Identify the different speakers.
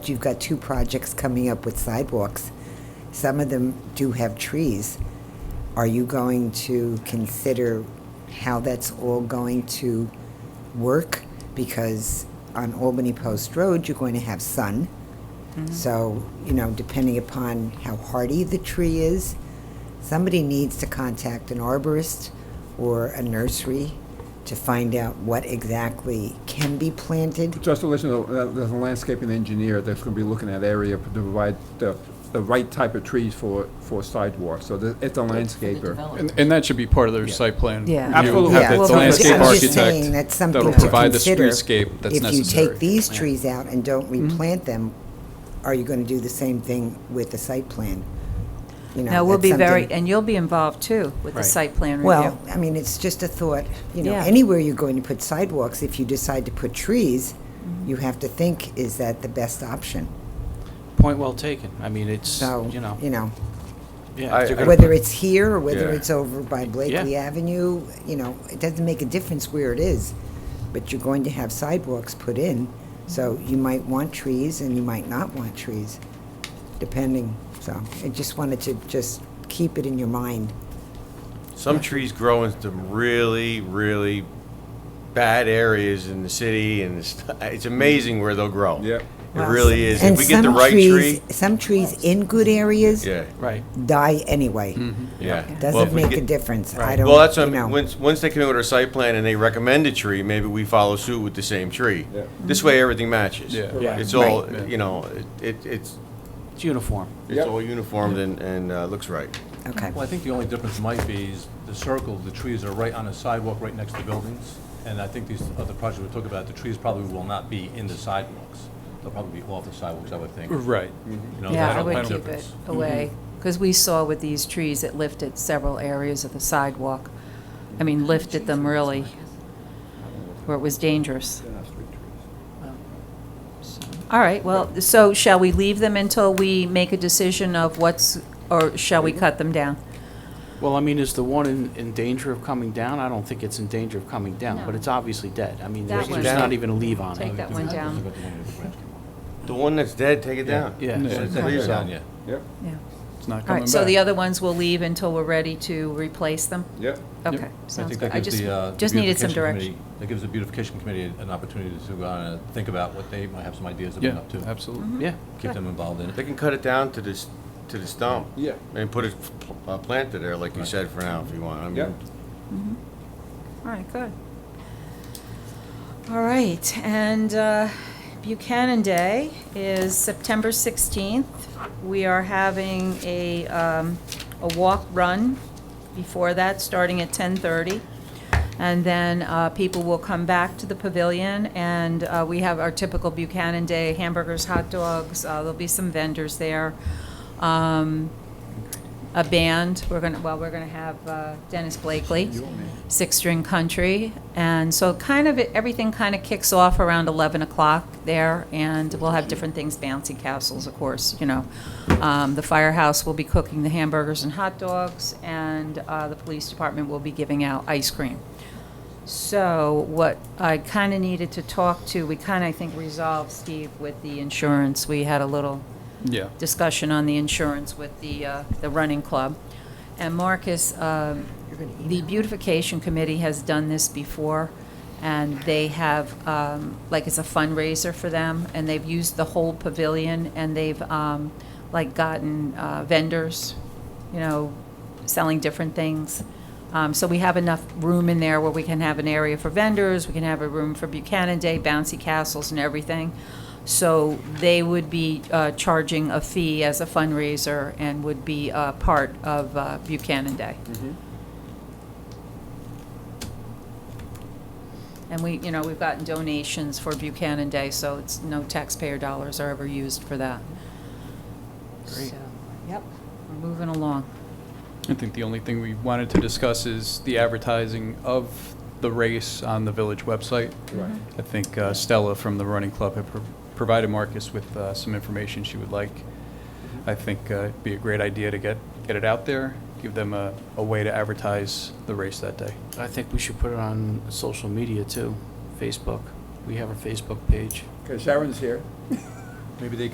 Speaker 1: You've got two projects coming up with sidewalks. Some of them do have trees. Are you going to consider how that's all going to work? Because on Albany Post Road, you're going to have sun. So, you know, depending upon how hardy the tree is, somebody needs to contact an arborist or a nursery to find out what exactly can be planted.
Speaker 2: Just to let you know, uh, there's a landscaping engineer that's gonna be looking at area to provide the, the right type of trees for, for sidewalks, so the- it's a landscaper.
Speaker 3: And, and that should be part of their site plan.
Speaker 4: Yeah.
Speaker 3: review,
Speaker 2: Absolutely.
Speaker 3: have
Speaker 2: Yeah,
Speaker 3: the-
Speaker 2: well,
Speaker 3: The
Speaker 2: but
Speaker 3: landscape
Speaker 1: I'm just saying
Speaker 3: architect
Speaker 1: that's something
Speaker 3: that'll
Speaker 1: to
Speaker 3: provide the
Speaker 1: consider.
Speaker 3: streetscape that's
Speaker 1: If you
Speaker 3: necessary.
Speaker 1: take these trees out and don't
Speaker 4: Mm-hmm.
Speaker 1: replant them, are you going to do the same thing with the site plan? You know,
Speaker 4: No, we'll
Speaker 1: that's
Speaker 4: be very,
Speaker 1: something-
Speaker 4: and you'll be involved too with the
Speaker 3: Right.
Speaker 4: site plan review.
Speaker 1: Well, I mean, it's just a thought, you know,
Speaker 4: Yeah.
Speaker 1: anywhere you're going to put sidewalks, if you decide to put trees,
Speaker 4: Mm-hmm.
Speaker 1: you have to think, is that the best option?
Speaker 5: Point well taken. I mean, it's,
Speaker 1: So,
Speaker 5: you know,
Speaker 1: you know,
Speaker 5: yeah, if you're gonna-
Speaker 1: whether it's here or whether
Speaker 2: Yeah.
Speaker 1: it's over by Blakely Avenue, you know, it doesn't make a difference where it is, but you're going to have sidewalks put in, so you might want trees and you might not want trees, depending, so I just wanted to just keep it in your mind.
Speaker 6: Some trees grow in some really, really bad areas in the city, and it's, it's amazing where they'll grow.
Speaker 2: Yep.
Speaker 6: It really is.
Speaker 1: And
Speaker 6: if we get the
Speaker 1: some
Speaker 6: right
Speaker 1: trees-
Speaker 6: tree,
Speaker 1: Some trees in good areas
Speaker 6: yeah,
Speaker 5: right.
Speaker 1: die anyway.
Speaker 6: yeah. Well, if
Speaker 1: Doesn't
Speaker 6: we
Speaker 1: make
Speaker 6: get-
Speaker 1: a difference, I
Speaker 5: Right.
Speaker 1: don't,
Speaker 6: Well, that's what I
Speaker 1: you know.
Speaker 6: mean. Once, once they come in with a site plan and they recommend a tree, maybe we follow suit with the same tree.
Speaker 2: Yeah.
Speaker 6: This way, everything matches.
Speaker 3: Yeah. Yeah.
Speaker 6: It's all,
Speaker 3: Right.
Speaker 6: you know, it- it, it's,
Speaker 5: It's uniform.
Speaker 6: it's
Speaker 2: Yep.
Speaker 6: all uniformed and, and uh, looks right.
Speaker 1: Okay,
Speaker 7: Well, I think the only difference might be is the circle, the trees are right on a sidewalk, right next to buildings. And I think these other projects we talked about, the trees probably will not be in the sidewalks. They'll probably be off the sidewalks, I would think.
Speaker 3: Right.
Speaker 7: You know,
Speaker 4: Yeah, I
Speaker 7: that'll be
Speaker 4: would
Speaker 7: the
Speaker 4: keep it
Speaker 7: difference.
Speaker 4: away, because we saw with these trees, it lifted several areas of the sidewalk. I mean, lifted them really, where it was dangerous. All right, well, so shall we leave them until we make a decision of what's, or shall we cut them down?
Speaker 5: Well, I mean, is the one in, in danger of coming down? I don't think it's in danger of coming down, but it's obviously dead. I mean,
Speaker 4: That
Speaker 5: there's there's
Speaker 4: one.
Speaker 5: not even a leave on
Speaker 4: Take
Speaker 5: it.
Speaker 4: that one down,
Speaker 6: The one that's dead, take it down.
Speaker 5: Yeah.
Speaker 6: Just
Speaker 3: Yeah.
Speaker 6: leave it down.
Speaker 7: Yeah.
Speaker 2: Yep,
Speaker 4: yeah.
Speaker 3: It's not
Speaker 4: All
Speaker 3: coming
Speaker 4: right, so the
Speaker 3: back.
Speaker 4: other ones we'll leave until we're ready to replace them?
Speaker 2: yep.
Speaker 4: Okay,
Speaker 7: I
Speaker 4: sounds
Speaker 7: think
Speaker 4: good.
Speaker 7: that
Speaker 4: I
Speaker 7: gives
Speaker 4: just,
Speaker 7: the, uh, the
Speaker 4: just needed some
Speaker 7: beautification
Speaker 4: direction.
Speaker 7: committee- That gives the beautification committee an opportunity to go on and think about what they might have some ideas
Speaker 3: Yeah,
Speaker 7: about too.
Speaker 3: absolutely.
Speaker 4: Mm-hmm.
Speaker 5: Yeah.
Speaker 7: Keep them involved in
Speaker 6: They
Speaker 7: it.
Speaker 6: can cut it down to this, to the stump.
Speaker 2: Yeah.
Speaker 6: And put a pl- a planter there, like you said, for now, if you want. I
Speaker 2: Yeah.
Speaker 6: mean,
Speaker 4: All right, good. All right, and uh, Buchanan Day is September 16th. We are having a, um, a walk-run before that, starting at 10:30. And then uh, people will come back to the pavilion, and uh, we have our typical Buchanan Day hamburgers, hot dogs, uh, there'll be some vendors there. Um, a band. We're gonna, well, we're gonna have uh, Dennis Blakely, Six String Country. And so kind of, everything kind of kicks off around 11 o'clock there, and we'll have different things, bouncy castles, of course, you know. Um, The firehouse will be cooking the hamburgers and hot dogs, and uh, the police department will be giving out ice cream. So what I kind of needed to talk to, we kind of, I think, resolved, Steve, with the insurance. We had a little
Speaker 3: Yeah.
Speaker 4: discussion on the insurance with the, uh, the running club. And Marcus, um, the beautification committee has done this before, and they have, um, like, it's a fundraiser for them, and they've used the whole pavilion, and they've, um, like, gotten uh, vendors, you know, selling different things. Um, So we have enough room in there where we can have an area for vendors, we can have a room for Buchanan Day, bouncy castles and everything. So they would be uh, charging a fee as a fundraiser and would be uh, part of uh, Buchanan Day. And we, you know, we've gotten donations for Buchanan Day, so it's, no taxpayer dollars are ever used for that.
Speaker 5: Great.
Speaker 4: So, Yep, we're moving along.
Speaker 3: I think the only thing we wanted to discuss is the advertising of the race on the village website.
Speaker 2: Right.
Speaker 3: I think uh, Stella from the running club had pro- provided Marcus with uh, some information she would like. I think uh, it'd be a great idea to get, get it out there, give them a, a way to advertise the race that day.
Speaker 5: I think we should put it on social media too, Facebook. We have a Facebook page.
Speaker 2: Okay, Sharon's here.
Speaker 7: Maybe they